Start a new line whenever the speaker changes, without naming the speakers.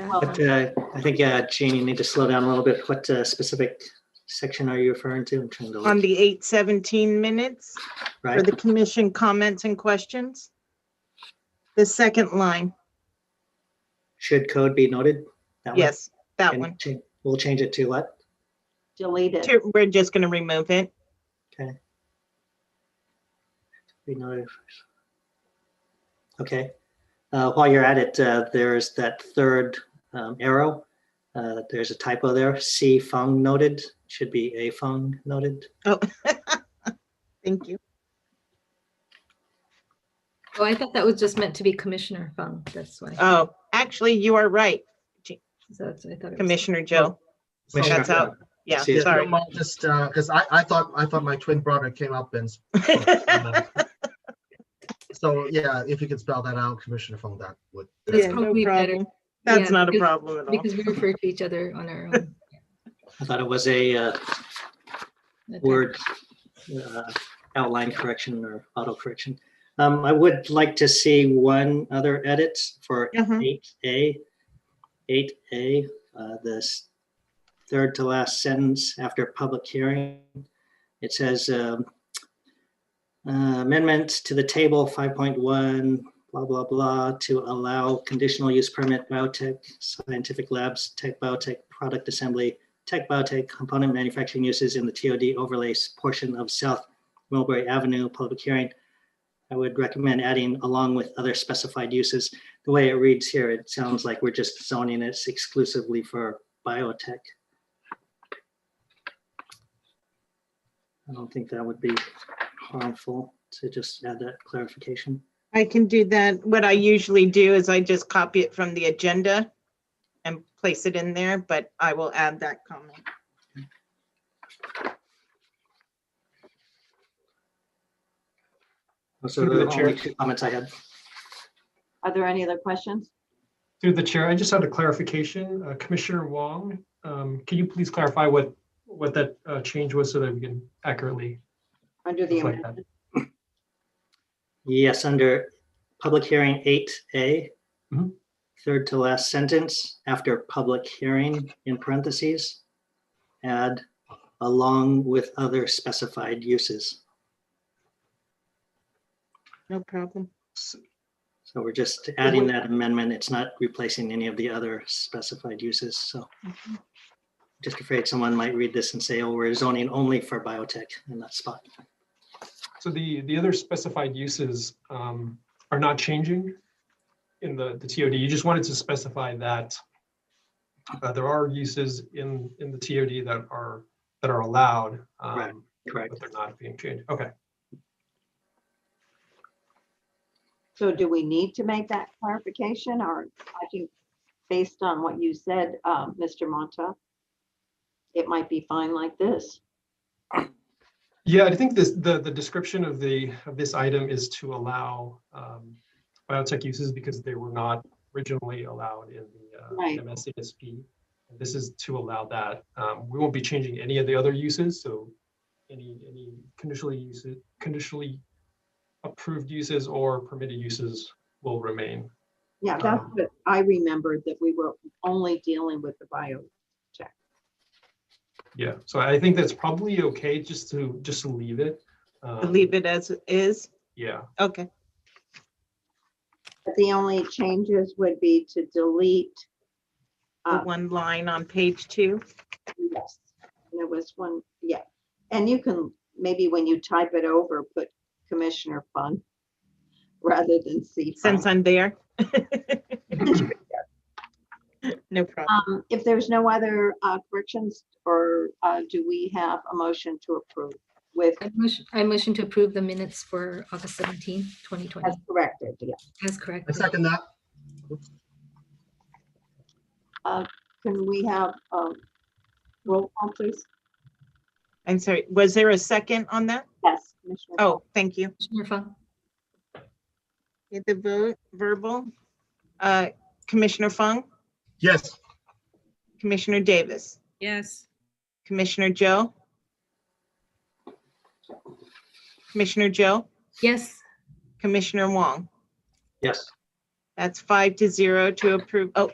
But uh, I think, uh, Jane, you need to slow down a little bit. What uh, specific section are you referring to? I'm trying to
on
look,
the eight seventeen minutes for
right?
the commission comments and questions. The second line,
Should code be noted? That one?
yes, that
And
one.
cha- We'll change it to what?
delete it.
Two- We're just gonna remove it.
Be noted. first. Okay. Uh, While you're at it, uh, there's that third um, arrow. Uh, There's a typo there. C Fung noted should be A Fung noted.
Thank you.
Oh, I thought that was just meant to be Commissioner Fung. That's why.
Oh, actually, you are right,
So that's what I thought. it was.
Commissioner Joe. So
Commissioner
that's out. Yeah,
See, it's
sorry.
Mom, Just, uh, because I, I thought, I thought my twin brother came up and. uh, So, yeah, if you could spell that out, Commissioner Fong, that would.
That's
Yeah, no
probably better.
problem. That's
Yeah,
not a
because-
problem at all.
Because we refer to each other on our own.
I thought it was a uh,
attack.
word uh, outline correction or auto correction. Um, I would like to see one other edit for
Uh-huh.
eight A. Eight A, uh, this third to last sentence after public hearing. It says um, uh, amendment to the table five point one, blah, blah, blah, to allow conditional use permit biotech, scientific labs, tech biotech, product assembly, Tech Biotech component manufacturing uses in the TOD overlays portion of South Mulberry Avenue public hearing. I would recommend adding along with other specified uses. The way it reads here, it sounds like we're just zoning it exclusively for biotech. I don't think that would be harmful to just add that clarification.
I can do that. What I usually do is I just copy it from the agenda and place it in there, but I will add that comment.
So
Through Oh, the
the only
chair.
two comments I had.
Are there any other questions?
Through the chair, I just had a clarification. Uh, Commissioner Wong, um, can you please clarify what, what that uh, change was so that we can accurately?
Under the
reflect that?
amendment,
Yes, under public hearing eight A,
Mhm.
third to last sentence, after public hearing in parentheses, add along with other specified uses.
No problem.
So we're just adding that amendment. It's not replacing any of the other specified uses, so. Just afraid someone might read this and say, oh, we're zoning only for biotech in that spot.
So the, the other specified uses um, are not changing in the, the TOD. You just wanted to specify that uh, there are uses in, in the TOD that are, that are allowed. um,
Right, correct.
But they're not being changed. Okay.
so do we need to make that clarification or I think based on what you said, uh, Mr. Monta, it might be fine like this.
Yeah, I think this, the, the description of the, of this item is to allow um, biotech uses because they were not originally allowed in
Right.
the uh, MSASP. This is to allow that. Um, We won't be changing any of the other uses, so any, any conditionally uses, conditionally approved uses or permitted uses will remain.
Yeah, that's
Um,
what I remembered that we were only dealing with the bio.
Yeah, so I think that's probably okay just to, just to leave it. um,
Leave it as is.
Yeah,
Okay.
But The only changes would be to delete.
The
uh,
one line on page two.
Yes, there was one, yeah. And you can, maybe when you type it over, put Commissioner Fun rather than C. Fun.
since I'm there. No problem.
Um, If there's no other uh, corrections, or uh, do we have a motion to approve with,
I motion- I motion to approve the minutes for August 17, 2020.
as corrected, yeah.
As
I
correct.
second that.
Can we have um, roll call, please?
I'm sorry, was there a second on that?
Yes, Commissioner.
Oh, thank you.
Commissioner Fung,
Get The vote verbal. Uh, Commissioner Fung,
Yes,
Commissioner Davis,
Yes,
Commissioner Joe. Commissioner Joe,
yes,
Commissioner Wong.
Yes,
That's five to zero to approve. Oh,